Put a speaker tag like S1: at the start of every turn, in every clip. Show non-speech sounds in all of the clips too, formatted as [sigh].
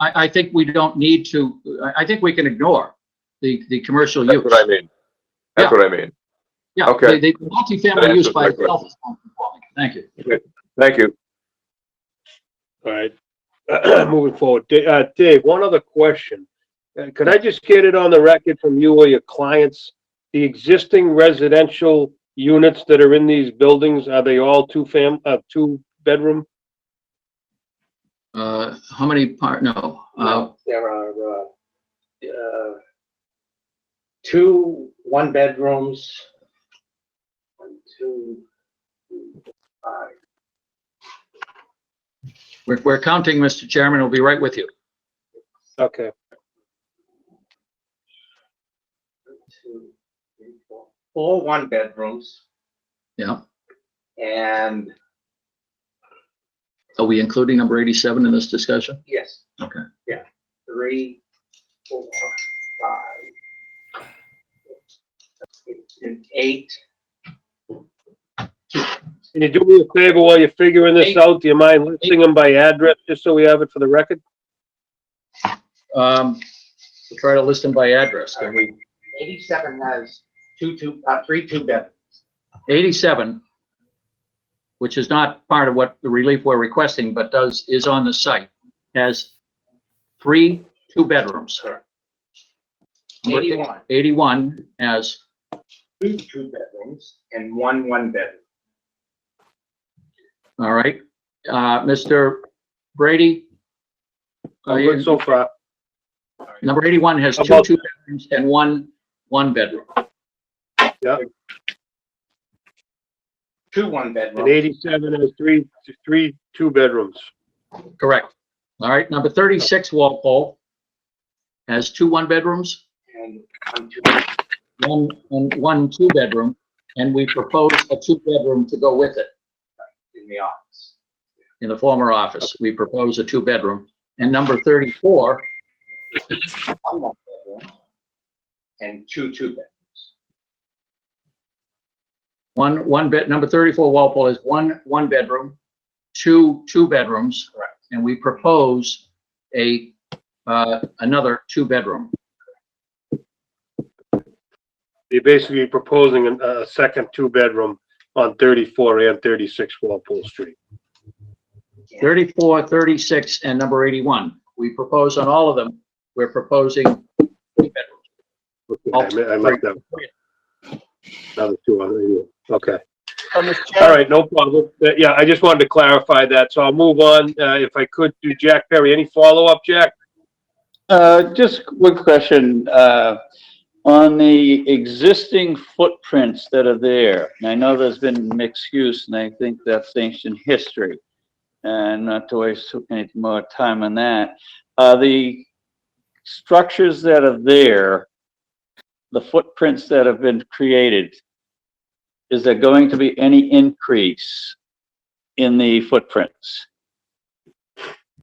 S1: I, I think we don't need to, I, I think we can ignore the, the commercial use.
S2: That's what I mean. That's what I mean.
S1: Yeah,
S2: Okay.
S1: the, the multifamily
S2: That
S1: use
S2: answers
S1: by
S2: my question.
S1: itself is non-conforming. Thank you.
S2: Thank you.
S3: All right, [clears throat] moving forward. Da- uh, Dave, one other question. Uh, Could I just get it on the record from you or your clients? The existing residential units that are in these buildings, are they all two fam, uh, two bedroom?
S1: Uh, how many part, no, uh,
S4: No, there are, uh, uh, two one-bedrooms. One, two, three, five.
S1: we're, we're counting, Mr. Chairman, we'll be right with you.
S3: Okay,
S4: One, two, three, four. Four one-bedrooms
S1: Yeah.
S4: and,
S1: Are we including number 87 in this discussion?
S4: yes.
S1: Okay.
S4: Yeah, three, four, five. six, and Eight.
S3: can you do me a favor while you're figuring this out? Do you mind listing them by address, just so we have it for the record?
S1: Um, we'll try to list them by address. Can we-
S4: Eighty-seven has two, two, uh, three two-bedrooms.
S1: 87, which is not part of what the relief we're requesting, but does, is on the site, has three two-bedrooms. Number eight-
S4: Eighty-one.
S1: 81 has
S4: two two bedrooms and one one bedroom.
S1: All right, uh, Mr. Brady? uh,
S3: I'm good so far.
S1: Number eighty-one has
S3: How
S1: two
S3: about-
S1: two bedrooms and one, one bedroom.
S4: Two one
S3: And
S4: bedrooms,
S3: eighty-seven is three, three, two bedrooms.
S1: Correct. All right, number thirty-six Walpole has two one bedrooms,
S4: and one two,
S1: one, and one two bedroom, and we propose a two bedroom to go with it
S4: in the office.
S1: in the former office. We propose a two bedroom. And number thirty-four
S4: One one bedroom and two two bedrooms.
S1: One, one bed, number 34 Walpole is one, one bedroom, two, two bedrooms.
S4: Correct.
S1: And we propose a, uh, another two bedroom.
S3: You're basically proposing an- a, a second two-bedroom on thirty-four and thirty-six Walpole Street.
S1: 34, 36, and number 81. We propose on all of them, we're proposing two bedrooms.
S3: Okay, I mi- I missed that. Another two on the, okay. All right, no problem. Uh, Yeah, I just wanted to clarify that, so I'll move on. Uh, if I could do Jack Perry, any follow-up, Jack?
S5: Uh, Just one question. uh, On the existing footprints that are there, and I know there's been mixed use, and I think that's ancient history. And not to waste any more time on that. Are the structures that are there, the footprints that have been created, is there going to be any increase in the footprints?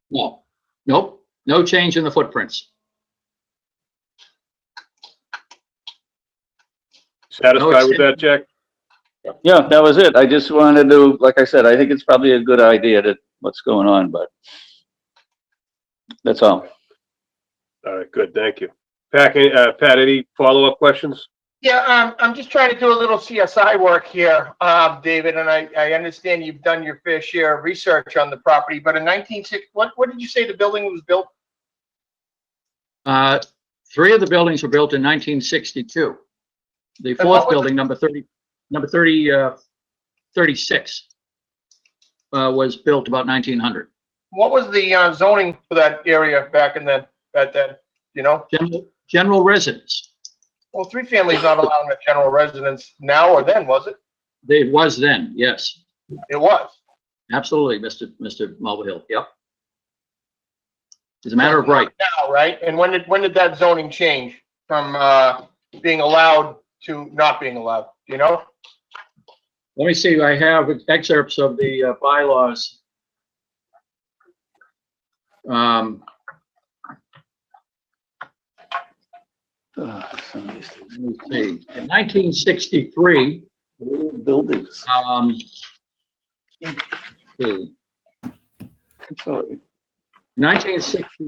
S1: No, nope, no change in the footprints.
S3: Satisfied with that, Jack?
S5: Yeah, that was it. I just wanted to, like I said, I think it's probably a good idea to what's going on, but that's all.
S3: All right, good, thank you. Pack, uh, Pat, any follow-up questions?
S6: Yeah, um, I'm just trying to do a little CSI work here, uh, David, and I, I understand you've done your fair share of research on the property, but in nineteen six, what, what did you say the building was built?
S1: Uh, Three of the buildings were built in 1962. The
S6: what was
S1: fourth
S6: the-
S1: building, number 30, number 30, uh, 36, uh, was built about 1900.
S6: What was the uh, zoning for that area back in then, back then, you know?
S1: General, general residence.
S6: Well, three families not allowed in a general residence now or then, was it?
S1: It was then, yes,
S6: It was.
S1: absolutely, Mr. Mr. Mulvihill, yep. It's a matter of right.
S6: Now, right? And when did, when did that zoning change from, uh, being allowed to not being allowed, you know?
S1: Let me see, I have excerpts of the uh, bylaws. Um,
S5: Ugh, some of these things.
S1: let me see, in 1963,
S5: Buildings.
S1: um, let's see,
S5: Sorry.
S1: 1963.